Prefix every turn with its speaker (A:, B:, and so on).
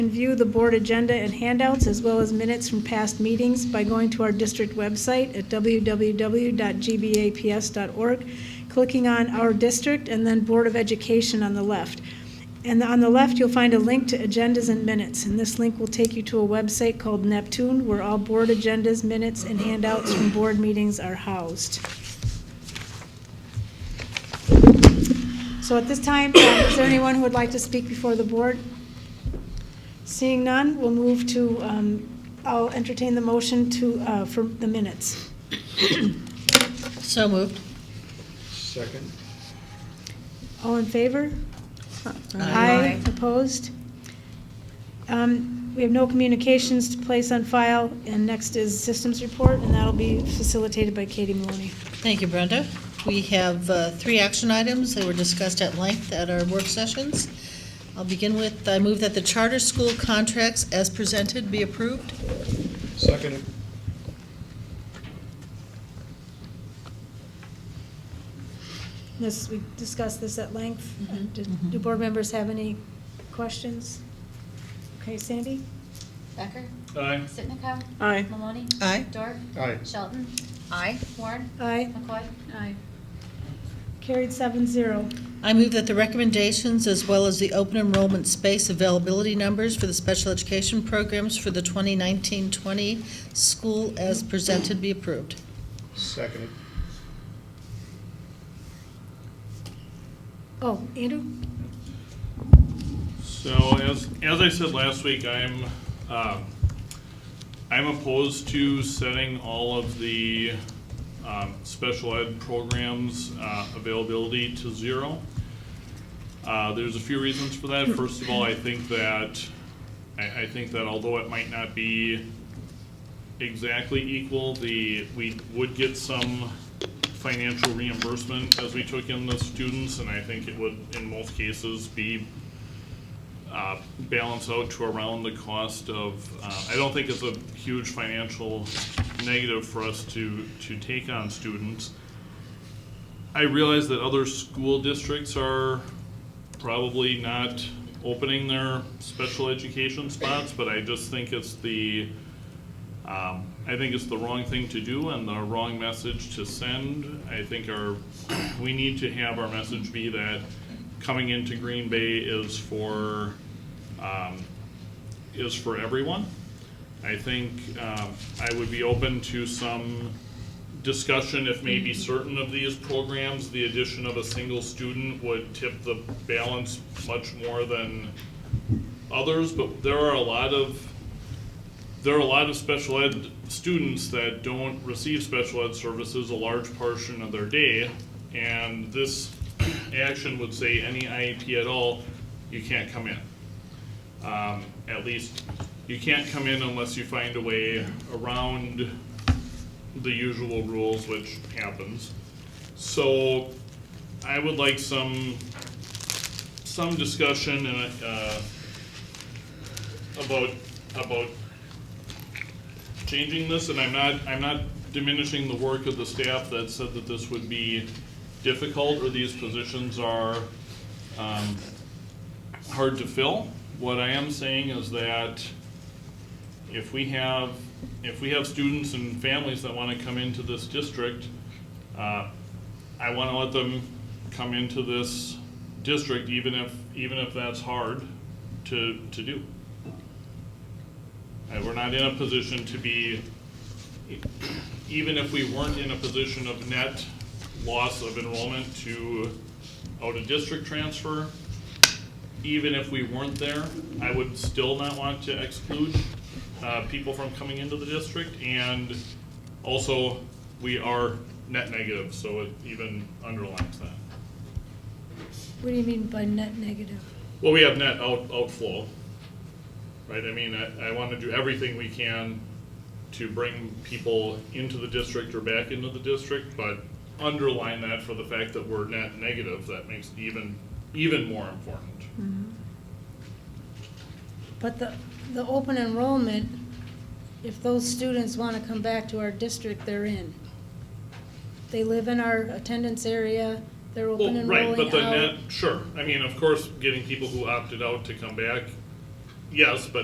A: and view the board agenda and handouts, as well as minutes from past meetings by going to our district website at www.gbaps.org, clicking on Our District, and then Board of Education on the left. And on the left, you'll find a link to agendas and minutes, and this link will take you to a website called Neptune, where all board agendas, minutes, and handouts from board meetings are housed. So at this time, uh, is there anyone who would like to speak before the board? Seeing none, we'll move to, um, I'll entertain the motion to, uh, for the minutes.
B: So moved.
C: Second.
A: All in favor?
B: Aye.
A: Opposed? Um, We have no communications to place on file, and next is systems report, and that'll be facilitated by Katie Maloney.
B: Thank you, Brenda. We have uh, three action items that were discussed at length at our work sessions. I'll begin with, I move that the charter school contracts as presented be approved.
C: Second.
A: This, we discussed this at length. Uh,
B: Mhm.
A: Do do board members have any questions? Okay, Sandy?
D: Becker?
C: Aye.
D: Sitnikow?
A: Aye.
D: Maloney?
B: Aye.
D: Dorf?
C: Aye.
D: Shelton? Aye. Warren?
A: Aye.
D: McCoy? Aye.
A: Carried seven zero.
B: I move that the recommendations, as well as the open enrollment space availability numbers for the special education programs for the 2019-20 school as presented be approved.
C: Second.
A: Oh, Andrew?
E: So as, as I said last week, I'm, um, I'm opposed to setting all of the um, special ed programs uh, availability to zero. Uh, There's a few reasons for that. First of all, I think that, I, I think that although it might not be exactly equal, the, we would get some financial reimbursement as we took in the students, and I think it would, in most cases, be uh, balance out to around the cost of, uh, I don't think it's a huge financial negative for us to, to take on students. I realize that other school districts are probably not opening their special education spots, but I just think it's the, um, I think it's the wrong thing to do and the wrong message to send. I think our, we need to have our message be that coming into Green Bay is for, um, is for everyone. I think, um, I would be open to some discussion if maybe certain of these programs, the addition of a single student would tip the balance much more than others, but there are a lot of there are a lot of special ed students that don't receive special ed services a large portion of their day, and this action would say any IEP at all, you can't come in. Um, at least, you can't come in unless you find a way around the usual rules, which happens. So, I would like some, some discussion and, uh, about, about changing this, and I'm not, I'm not diminishing the work of the staff that said that this would be difficult, or these positions are um, hard to fill. What I am saying is that if we have, if we have students and families that want to come into this district, uh, I want to let them come into this district, even if, even if that's hard to, to do. Uh, We're not in a position to be, even if we weren't in a position of net loss of enrollment to out-of-district transfer, even if we weren't there, I would still not want to exclude uh, people from coming into the district. And also, we are net negative, so it even underlines that.
A: What do you mean by net negative?
E: Well, we have net out, outflow, right? I mean, I, I want to do everything we can to bring people into the district or back into the district, but underline that for the fact that we're net negative, that makes it even, even more important.
A: But the, the open enrollment, if those students want to come back to our district, they're in. They live in our attendance area, they're open
E: Well,
A: and
E: right, but
A: rolling
E: the
A: out.
E: net, sure, I mean, of course, getting people who opted out to come back yes, but